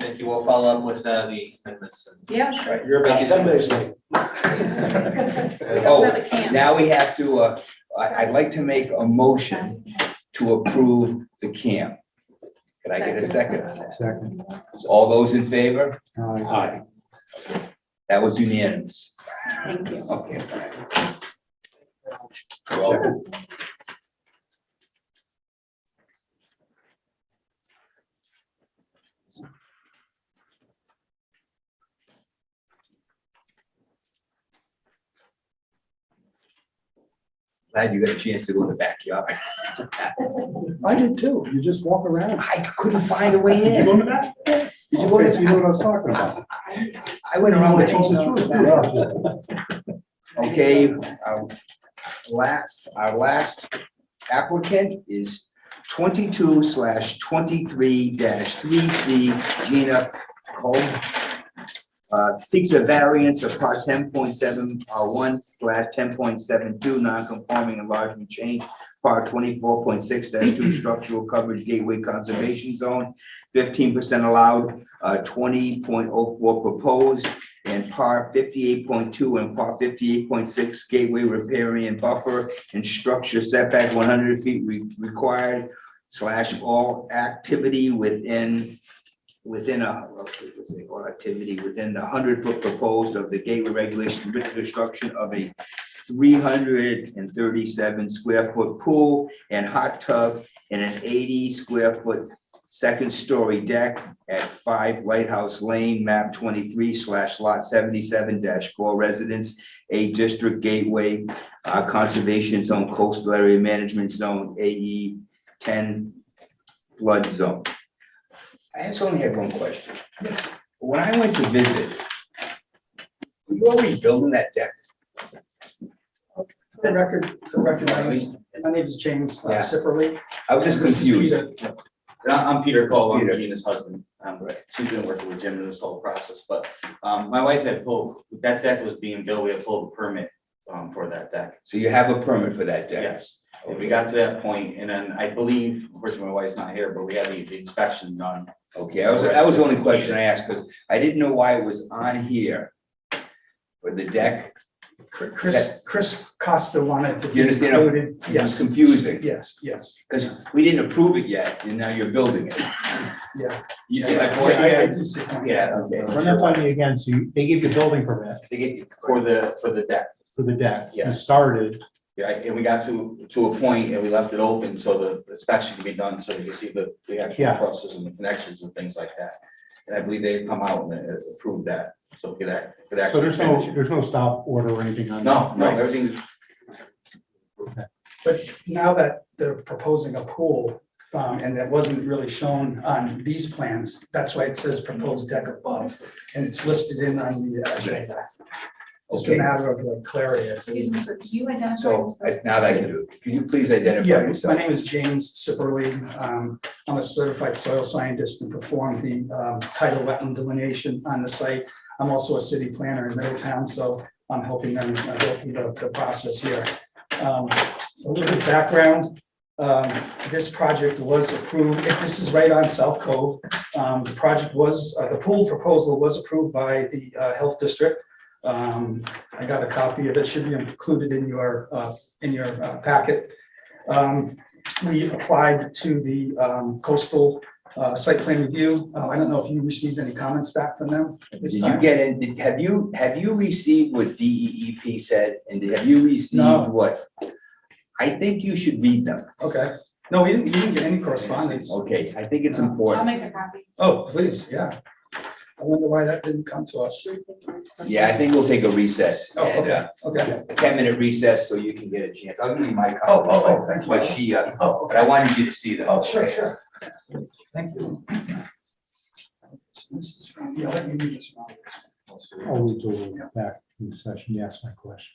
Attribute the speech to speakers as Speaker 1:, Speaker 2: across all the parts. Speaker 1: Thank you. We'll follow up with uh, the amendments. and-
Speaker 2: Yeah, sure.
Speaker 3: You're about
Speaker 1: Thank you so
Speaker 3: ten minutes late.
Speaker 2: We
Speaker 4: Oh,
Speaker 2: also have a camp.
Speaker 4: Now we have to, uh, I, I'd like to make a motion to approve the camp. Can I get a second? on that?
Speaker 5: Second.
Speaker 4: So All those in favor?
Speaker 5: Aye.
Speaker 3: Aye.
Speaker 4: That was unanimous.
Speaker 2: Thank you.
Speaker 4: Okay. Well, Glad you got a chance to go in the backyard.
Speaker 5: I did too. You just walk around.
Speaker 4: I couldn't find a way
Speaker 5: You
Speaker 4: in.
Speaker 5: go to that?
Speaker 4: Did you go to
Speaker 5: Okay, so You know what I was talking about.
Speaker 4: I I went around with
Speaker 5: It's
Speaker 4: all
Speaker 5: the
Speaker 4: the
Speaker 5: truth. Yeah.
Speaker 4: Okay, our last, our last applicant is twenty-two slash twenty-three dash three C Gina Cole. Uh, seeks a variance of part ten point seven, uh, one slash ten point seven two, non-conforming enlargement change. Part twenty-four point six dash two, structural coverage gateway conservation zone, fifteen percent allowed, uh, twenty point oh four proposed and par fifty-eight point two and par fifty-eight point six gateway riparian buffer and structure setback one hundred feet re- required slash all activity within, within a, let's say, all activity within the hundred foot proposed of the gateway regulation with construction of a three hundred and thirty-seven square foot pool and hot tub and an eighty square foot second story deck at five Lighthouse Lane, map twenty-three slash lot seventy-seven dash four residence, A District Gateway, uh, Conservation Zone, Coastal Area Management Zone, AE ten flood zone. I just only have one question. Yes. When I went to visit, were you already building that deck?
Speaker 6: For the record, for the record, my name's- my name is James uh,
Speaker 1: Yeah.
Speaker 6: Sipperly.
Speaker 4: I was just
Speaker 6: This is
Speaker 4: confused.
Speaker 6: Peter.
Speaker 1: And I- I'm Peter Cole, I'm
Speaker 4: Peter.
Speaker 1: Gina's husband. Um, She's been working with Jim in this whole process, but um, my wife had pulled, that deck was being built, we had pulled a permit um, for that deck.
Speaker 4: So you have a permit for that deck?
Speaker 1: Yes, and we got to that point, and then I believe, of course, my wife's not here, but we had the the inspection done.
Speaker 4: Okay, I was, that was the only question I asked, because I didn't know why it was on here. For the deck,
Speaker 6: Cr- Chris, Chris Costa wanted to.
Speaker 4: You understand?
Speaker 6: included.
Speaker 4: it was
Speaker 6: Yes,
Speaker 4: confusing,
Speaker 6: yes, yes,
Speaker 4: because we didn't approve it yet, and now you're building it.
Speaker 6: yeah.
Speaker 4: You see my
Speaker 6: Yeah, I- I
Speaker 4: point?
Speaker 6: do see your point.
Speaker 4: Yeah, okay.
Speaker 5: Run that by me again. So you- they gave you a building permit
Speaker 4: They get you-
Speaker 1: For the, for the deck.
Speaker 5: for the deck.
Speaker 1: Yeah.
Speaker 5: You started.
Speaker 1: Yeah, and we got to, to a point and we left it open so the inspection could be done, so we could see the, the actual
Speaker 5: Yeah.
Speaker 1: process and the connections and things like that. And I believe they've come out and uh, approved that, so we could act, could
Speaker 5: So
Speaker 1: actually.
Speaker 5: there's no,
Speaker 1: finish it.
Speaker 5: there's no stop order or anything on
Speaker 1: No,
Speaker 5: that?
Speaker 1: no, everything,
Speaker 6: But now that they're proposing a pool, um, and that wasn't really shown on these plans, that's why it says proposed deck above, and it's listed in on the uh, agenda. Just a
Speaker 4: Okay.
Speaker 6: matter of like clarity. it's-
Speaker 2: Excuse me, sir, could you identify?
Speaker 4: So,
Speaker 2: yourself?
Speaker 4: that's- now that I can do it, can you please identify
Speaker 6: Yeah, my
Speaker 4: yourself?
Speaker 6: name is James Sipperly. Um, I'm a certified soil scientist and perform the um, tidal wetland delineation on the site. I'm also a city planner in Middletown, so I'm helping them uh, go through the, the process here. Um, A little bit of background, um, this project was approved, this is right on South Cove. Um, The project was, uh, the pool proposal was approved by the uh, Health District. Um, I got a copy of it, should be included in your, uh, in your uh, packet. Um, We applied to the um, coastal uh, site plan review. Uh, I don't know if you received any comments back from them at
Speaker 4: Did
Speaker 6: this
Speaker 4: you
Speaker 6: time.
Speaker 4: get in, did- have you, have you received what DEEP said, and have you
Speaker 6: No.
Speaker 4: received what? I think you should read them,
Speaker 6: Okay. No, we didn't, we didn't get any correspondence.
Speaker 4: okay, I think it's
Speaker 2: I'll
Speaker 4: important,
Speaker 2: make a copy.
Speaker 6: Oh, please, yeah. I wonder why that didn't come to us.
Speaker 4: yeah, I think we'll take a recess.
Speaker 6: Oh,
Speaker 4: and, uh,
Speaker 6: okay, okay.
Speaker 4: a ten minute recess so you can get a chance. I'll give you my copy.
Speaker 6: Oh, oh, oh, thank you.
Speaker 4: But she, uh,
Speaker 6: Oh,
Speaker 4: but I wanted you to see them.
Speaker 6: Oh, sure, sure. Thank you. This is from- Yeah, let me read this one.
Speaker 5: Oh, we do it back in session. You asked my question.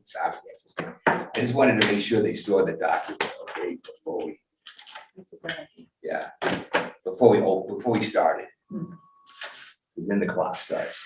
Speaker 4: It's out there, just- I just wanted to make sure they saw the document, okay, before we, yeah, before we, oh, before we started.
Speaker 2: Hmm.
Speaker 4: Because then the clock starts.